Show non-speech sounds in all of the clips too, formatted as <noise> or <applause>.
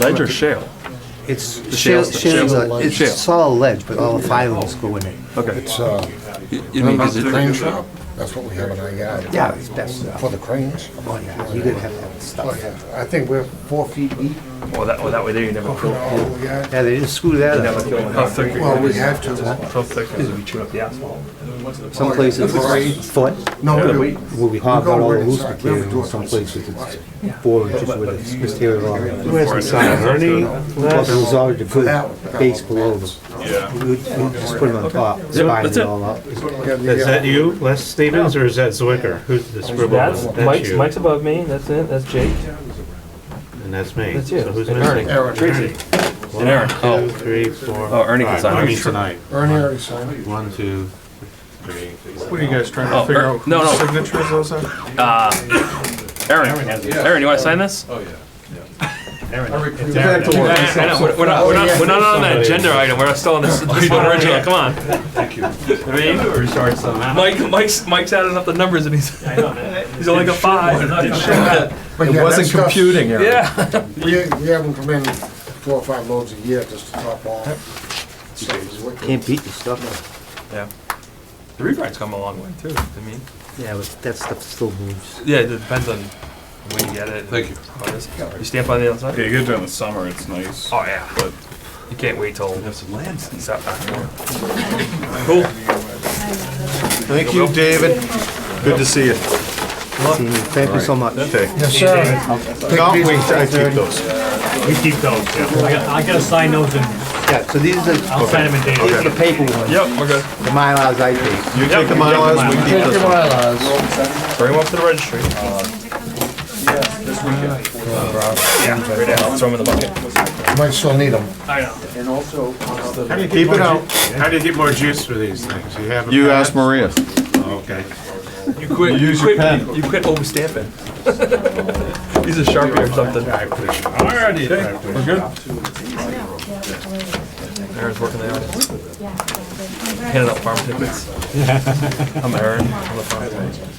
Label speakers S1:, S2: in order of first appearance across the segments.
S1: Ledge or shale?
S2: It's,
S1: shale
S2: shale-
S1: stuff.
S2: shale's
S1: Shale.
S2: a- it's
S1: Shale.
S2: solid ledge, but all the filings go in it.
S1: Okay.
S3: It's, uh,
S1: You you mean,
S3: remember
S1: 'cause
S3: the
S1: it-
S3: crane shop? That's what we have in our yard.
S2: Yeah, it's best, uh,
S3: For the cranes?
S2: oh yeah, you gotta have that
S3: Oh,
S2: stuff.
S3: yeah. I think we're four feet deep.
S1: well, that, well, that way there you never
S3: in
S1: feel,
S3: all the yard.
S2: Yeah, they didn't screw that up.
S1: how thick,
S3: Well, we have to.
S1: how thick is it, we chew up the asphalt?
S2: Some places it's a foot,
S3: No, we do.
S2: where we hog out all the loose material, some places it's four inches with this material on it.
S4: Where's the sign, Ernie?
S2: Plus, it was already a good
S3: That-
S2: base below them.
S1: Yeah.
S2: We would we would just put them on top, spine
S1: that's
S2: it
S1: it.
S2: all up.
S3: Yeah, the,
S4: Is
S3: uh,
S4: that you, Les Stevens, or is that Zwicker? Who's the scribble?
S5: That's Mike's,
S4: you.
S5: Mike's above me. That's it. That's Jake.
S4: And that's me.
S5: That's you.
S4: So who's
S5: and
S4: missing?
S5: Ernie.
S3: Aaron, Ernie
S4: One,
S1: And Aaron.
S4: two, three, four,
S1: Oh, Ernie can
S4: five.
S1: sign
S4: I
S1: it.
S4: mean tonight.
S3: already signed it.
S4: One, two, three.
S6: What are you guys trying
S1: Oh,
S6: to figure
S1: er-
S6: out?
S1: no,
S6: whose
S1: no.
S6: Signature is those on?
S1: Aaron, Aaron, you wanna sign this?
S4: It's Aaron.
S1: Yeah, yeah, I know. We're we're not, we're not, we're not on that agenda item, we're still on this, <laughs> this one original, come on. Thank you. I mean, Mike, Mike's, Mike's adding up the numbers and he's, he's only got five.
S3: But yeah, that stuff's-
S1: Yeah.
S3: We, we have them come in four or five loads a year just to top off. So it's wicked.
S2: Can't beat the stuff.
S1: Yeah. The rewrite's come a long way too, I mean,
S2: Yeah, but that stuff still moves.
S1: yeah, it depends on when you get it. Thank you. You stamp on the outside?
S6: Yeah, you get it during the summer, it's nice.
S1: Oh, yeah. But You can't wait till. Have some lands. Cool.
S6: Thank you, David. Good to see you.
S2: Thank you so much.
S3: Yes, sir. Take these ones, Ernie.
S7: We keep those, yeah. I got- I gotta sign those and
S2: Yeah, so these are, these
S7: I'll sign them in
S2: are
S7: David.
S2: the paper ones,
S1: Yep, we're good.
S2: the Mylars I take.
S6: You take the miles, we keep this one.
S1: Bring them up to the registry. Yeah, right now, throw them in the bucket.
S3: Might still need them.
S7: I know.
S4: How do you get
S6: Keep it
S4: more
S6: out.
S4: ju- How do you get more juice for these things? You have a.
S6: You
S4: pen?
S6: asked Maria.
S4: Oh, Okay.
S1: You quit, you
S6: Use your
S1: quit,
S6: pen.
S1: you quit <laughs> overstamping. Use a Sharpie or something.
S4: I appreciate it.
S1: Alrighty. We're good? Aaron's working the audience. Handing out farm tickets. I'm Aaron, I'm the farm agent.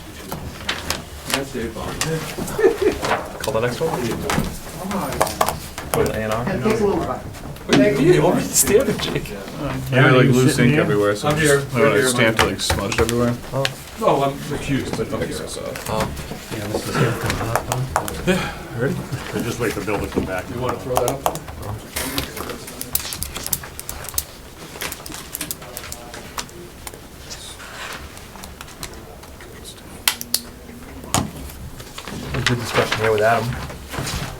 S1: Call the next one? Go to the A and R? Wait, you overstamped it, Jake.
S6: I have like loose ink everywhere, so
S8: I'm here.
S6: just- I
S8: Right
S6: would
S8: here.
S6: stamp like smudged everywhere.
S8: Oh, I'm accused, but I'm here, so.
S4: Just wait for Bill to come back.
S8: You wanna throw that up?
S1: It was a good discussion here with Adam.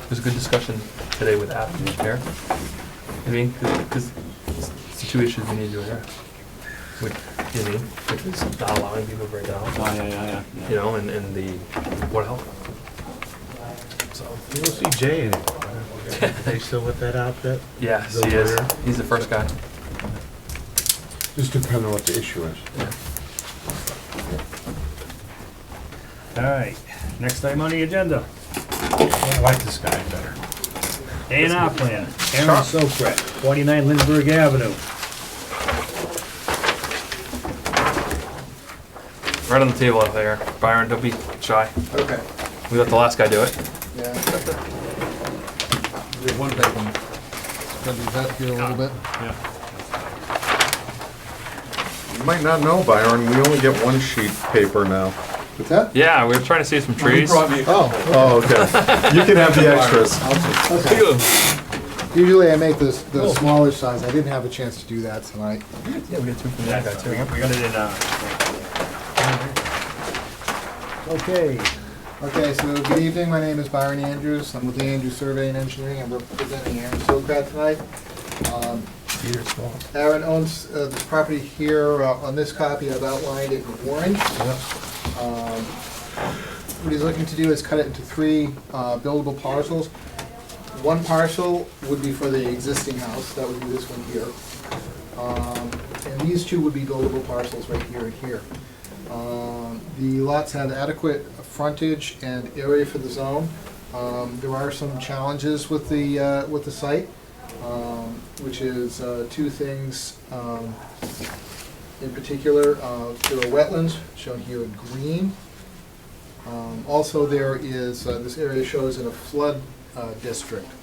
S1: It was a good discussion today with Adam, the chair. I mean, because it's the two issues we need to address. Which, you know, which is not allowing people to break it out.
S4: yeah, yeah,
S1: You know, and, and the Board of Health. So,
S4: You don't see Jay anymore. huh? They still with that outfit?
S1: yes, he is. He's the first guy.
S3: Just depending on what the issue is.
S7: All right, next item on the agenda,
S4: I like this guy better.
S7: A and R plan. Aaron Sokrat, 49 Lindbergh Avenue.
S1: Right on the table up there. Byron, don't be shy.
S3: Okay.
S1: We let the last guy do it.
S3: Yeah. We have one big one. Gotta do that here a little bit.
S6: You might not know, Byron, we only get one sheet paper now.
S3: What's that?
S1: Yeah, we were trying to save some trees.
S8: Brought me a
S3: Oh,
S6: Oh, okay. You can have the extras.
S3: okay. Usually I make this, the smaller size. I didn't have a chance to do that tonight.
S1: Yeah, we got two from that guy too.
S7: We got it in, uh. Okay,
S3: Okay, so good evening. My name is Byron Andrews. I'm with the Andrews Survey and Engineering. I'm representing Aaron Sokrat tonight. Um,
S1: Peter Small.
S3: Aaron owns uh, this property here, uh, on this copy, I've outlined it in orange. Um, What he's looking to do is cut it into three uh, buildable parcels. One parcel would be for the existing house, that would be this one here. Um, And these two would be buildable parcels right here and here. Um, The lots have adequate frontage and area for the zone. Um, There are some challenges with the, uh, with the site, um, which is uh, two things um, in particular. Uh, There are wetlands, shown here in green. Um, Also, there is, uh, this area shows in a flood uh, district.